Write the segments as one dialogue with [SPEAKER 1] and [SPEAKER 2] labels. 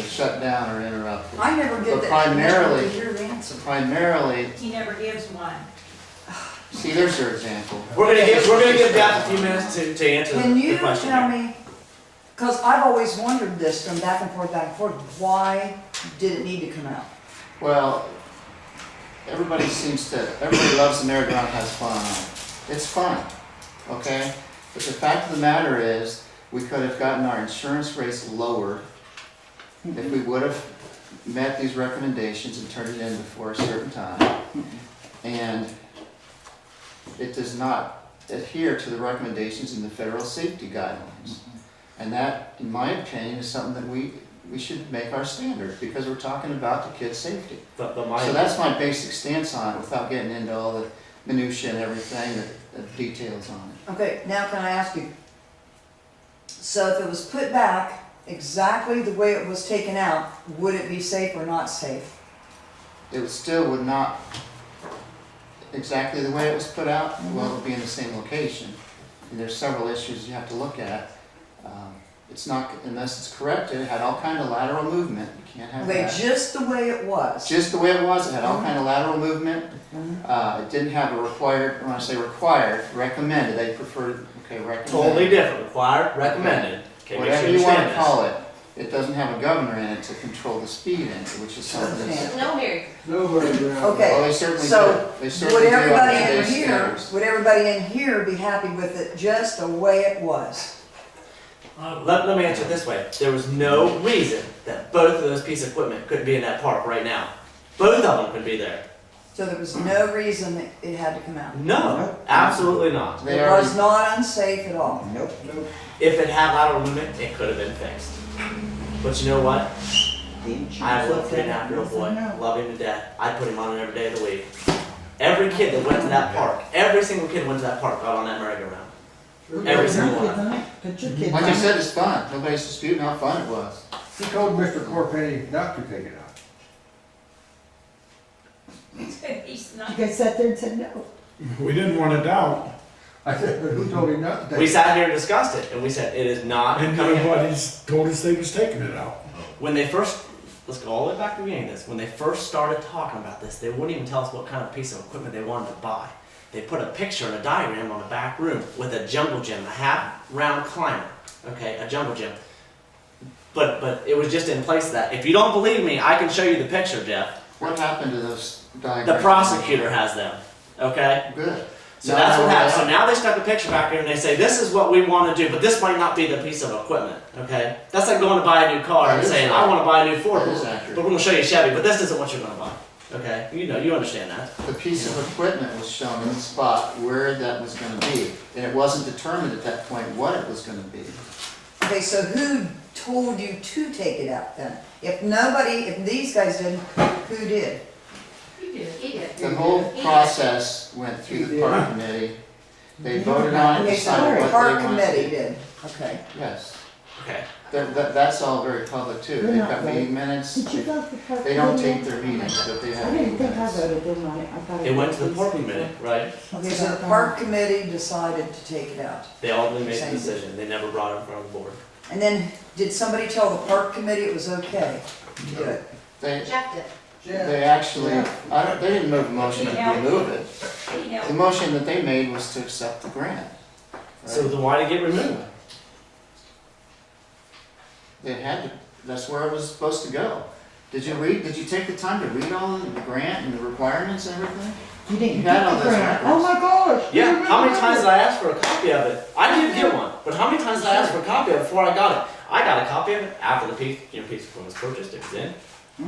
[SPEAKER 1] shut down or interrupted.
[SPEAKER 2] I never get
[SPEAKER 1] But
[SPEAKER 2] that.
[SPEAKER 1] primarily-
[SPEAKER 2] Your answer.
[SPEAKER 1] Primarily,
[SPEAKER 3] He never gives one.
[SPEAKER 1] see, there's your example.
[SPEAKER 4] We're gonna give, we're gonna give Beth a few minutes to, to answer
[SPEAKER 2] Can
[SPEAKER 4] the
[SPEAKER 2] you
[SPEAKER 4] the question.
[SPEAKER 2] tell me, because I've always wondered this from back and forth, back and forth, why did it need to come out?
[SPEAKER 1] Well, everybody seems to, everybody loves the merry-go-round has fun. It's fun, okay? But the fact of the matter is, we could have gotten our insurance rates lower if we would have met these recommendations and turned it in before a certain time. And it does not adhere to the recommendations in the federal safety guidelines. And that, in my opinion, is something that we, we should make our standard, because we're talking about the kid's safety.
[SPEAKER 4] The, the
[SPEAKER 1] So
[SPEAKER 4] mic,
[SPEAKER 1] that's my basic stance on it, without getting into all the minutia and everything, the- the details on it.
[SPEAKER 2] Okay, now can I ask you? So if it was put back exactly the way it was taken out, would it be safe or not safe?
[SPEAKER 1] It would still would not, exactly the way it was put out, well, it'll be in the same location. And there's several issues you have to look at. Um, It's not, unless it's corrected, it had all kind of lateral movement, you can't have that.
[SPEAKER 2] Wait, just the way it was?
[SPEAKER 1] just the way it was, it had all
[SPEAKER 2] Mhm.
[SPEAKER 1] kind of lateral movement.
[SPEAKER 2] Mhm.
[SPEAKER 1] Uh, it didn't have a required, when I say required, recommended, they preferred, okay, recommended.
[SPEAKER 4] totally different, required, recommended. Okay, make sure
[SPEAKER 1] Whatever you wanna
[SPEAKER 4] understand this.
[SPEAKER 1] call it, it doesn't have a governor in it to control the speed in it, which is something that's.
[SPEAKER 5] No, Mary.
[SPEAKER 6] Nobody around.
[SPEAKER 2] Okay.
[SPEAKER 1] Well, they certainly
[SPEAKER 2] so
[SPEAKER 1] do, they certainly
[SPEAKER 2] Would
[SPEAKER 1] do on
[SPEAKER 2] everybody in
[SPEAKER 1] today's
[SPEAKER 2] here,
[SPEAKER 1] standards.
[SPEAKER 2] would everybody in here be happy with it just the way it was?
[SPEAKER 4] Uh, Let, let me answer it this way. There was no reason that both of those pieces of equipment couldn't be in that park right now. Both of them could be there.
[SPEAKER 2] So there was no reason that it had to come out?
[SPEAKER 4] No, absolutely not.
[SPEAKER 1] They
[SPEAKER 2] It
[SPEAKER 1] already,
[SPEAKER 2] was not unsafe at
[SPEAKER 7] Oh,
[SPEAKER 2] all?
[SPEAKER 6] Nope, nope.
[SPEAKER 4] If it had lateral movement, it could have been fixed. But you know what? I have a three and a half year old boy. Love him to death. I put him on it every day of the week. Every kid that went to that park, every single kid that went to that park got on that merry-go-round. Every single one.
[SPEAKER 1] like Mm-hmm. I said, it's fun, nobody's disputing how fun it was.
[SPEAKER 6] He told Mr. Corpenny not to take it out.
[SPEAKER 3] He's not.
[SPEAKER 7] guys sat there and said no.
[SPEAKER 8] We didn't want it out,
[SPEAKER 6] I said, but who told him not to
[SPEAKER 4] We
[SPEAKER 6] take it?
[SPEAKER 4] sat here and discussed it, and we said it is not
[SPEAKER 8] and
[SPEAKER 4] coming in.
[SPEAKER 8] nobody's told us they was taking it out.
[SPEAKER 4] When they first, let's go all the way back to the beginning of this. When they first started talking about this, they wouldn't even tell us what kind of piece of equipment they wanted to buy. They put a picture and a diagram on the back room with a jungle gym, a half round climber, okay, a jungle gym. But but it was just in place of that. If you don't believe me, I can show you the picture, Jeff.
[SPEAKER 1] What happened to those diagrams?
[SPEAKER 4] The prosecutor has them, okay.
[SPEAKER 1] Good.
[SPEAKER 4] So
[SPEAKER 1] No,
[SPEAKER 4] that's
[SPEAKER 1] no,
[SPEAKER 4] what
[SPEAKER 1] no,
[SPEAKER 4] happened. So
[SPEAKER 1] no.
[SPEAKER 4] now they stuck a picture back here and they say, this is what we want to do, but this might not be the piece of equipment, okay? That's like going to buy a new car
[SPEAKER 1] That
[SPEAKER 4] and
[SPEAKER 1] is
[SPEAKER 4] saying, I
[SPEAKER 1] accurate.
[SPEAKER 4] want to buy a new Ford,
[SPEAKER 1] That is
[SPEAKER 4] but
[SPEAKER 1] accurate.
[SPEAKER 4] we're going to show you Chevy, but this isn't what you're going to buy, okay? You know, you understand that.
[SPEAKER 1] The piece of equipment was shown in the spot where that was gonna be, and it wasn't determined at that point what it was gonna be.
[SPEAKER 2] Okay, so who told you to take it out then? If nobody, if these guys didn't, who did?
[SPEAKER 3] You did.
[SPEAKER 5] He did.
[SPEAKER 1] The whole process went through the park committee, they voted on it,
[SPEAKER 2] Okay, so
[SPEAKER 1] decided
[SPEAKER 2] the
[SPEAKER 1] what they
[SPEAKER 2] park
[SPEAKER 1] wanted.
[SPEAKER 2] committee did, okay.
[SPEAKER 1] Yes,
[SPEAKER 4] Okay.
[SPEAKER 1] that, that, that's all very public too,
[SPEAKER 7] They're
[SPEAKER 1] they've
[SPEAKER 7] not
[SPEAKER 1] got
[SPEAKER 7] right.
[SPEAKER 1] meeting minutes,
[SPEAKER 7] Did you
[SPEAKER 1] they
[SPEAKER 7] go to the park?
[SPEAKER 1] they don't
[SPEAKER 7] meeting?
[SPEAKER 1] take their meetings, but they
[SPEAKER 7] I
[SPEAKER 1] have
[SPEAKER 7] didn't
[SPEAKER 1] meeting
[SPEAKER 7] think I
[SPEAKER 1] minutes.
[SPEAKER 7] voted, didn't I? I thought I
[SPEAKER 4] It went to the
[SPEAKER 7] voted.
[SPEAKER 4] park committee, right?
[SPEAKER 2] Okay, so the park committee decided to take it out.
[SPEAKER 4] They all made the
[SPEAKER 2] Same.
[SPEAKER 4] decision. They never brought it in front of the board.
[SPEAKER 2] And then, did somebody tell the park committee it was okay to do it?
[SPEAKER 1] They,
[SPEAKER 5] Jeff did.
[SPEAKER 1] they actually, I don't, they didn't move the motion to
[SPEAKER 3] Yeah.
[SPEAKER 1] remove it,
[SPEAKER 3] He helped.
[SPEAKER 1] the motion that they made was to accept the grant.
[SPEAKER 4] So
[SPEAKER 1] right?
[SPEAKER 4] then why did it get removed?
[SPEAKER 1] It had to, that's where it was supposed to go. Did you read, did you take the time to read all the grant and the requirements and everything?
[SPEAKER 7] You didn't
[SPEAKER 1] You had all
[SPEAKER 7] get the
[SPEAKER 1] those
[SPEAKER 7] grant.
[SPEAKER 1] records.
[SPEAKER 7] Oh my gosh. you
[SPEAKER 4] Yeah,
[SPEAKER 7] didn't
[SPEAKER 4] how many
[SPEAKER 7] get
[SPEAKER 4] times
[SPEAKER 7] it.
[SPEAKER 4] did I ask for a copy of it? I did get one, but how many times did I ask for a copy of it before I got it? I got a copy of it after the piece, you know, piece of equipment was purchased, it was in.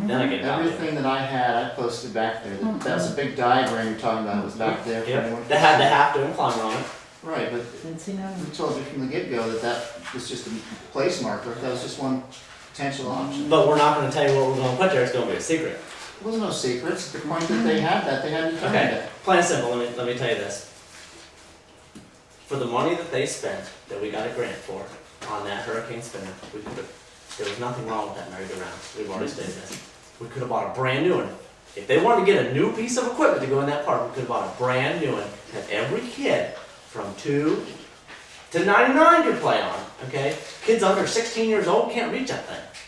[SPEAKER 4] Then I get a copy of it.
[SPEAKER 1] Everything that I had, I posted back there. That that was a big diagram you're talking about, it was back there. for everyone to
[SPEAKER 4] Yep, that had the
[SPEAKER 1] see.
[SPEAKER 4] half dome climber on it.
[SPEAKER 1] Right, but
[SPEAKER 7] Didn't see none.
[SPEAKER 1] we told you from the get-go that that was just a place marker, that was just one potential option.
[SPEAKER 4] But we're not gonna tell you what we're gonna put there, it's gonna be a secret.
[SPEAKER 1] It was no secret, it's the point that they had that, they had determined
[SPEAKER 4] Okay,
[SPEAKER 1] that.
[SPEAKER 4] plain and simple, let me, let me tell you this. For the money that they spent, that we got a grant for, on that hurricane spinner, we could have, there was nothing wrong with that merry-go-round, we've already stated this. We could have bought a brand new one. If they wanted to get a new piece of equipment to go in that park, we could have bought a brand new one that every kid from two to ninety-nine could play on, okay? Kids under sixteen years old can't reach that thing.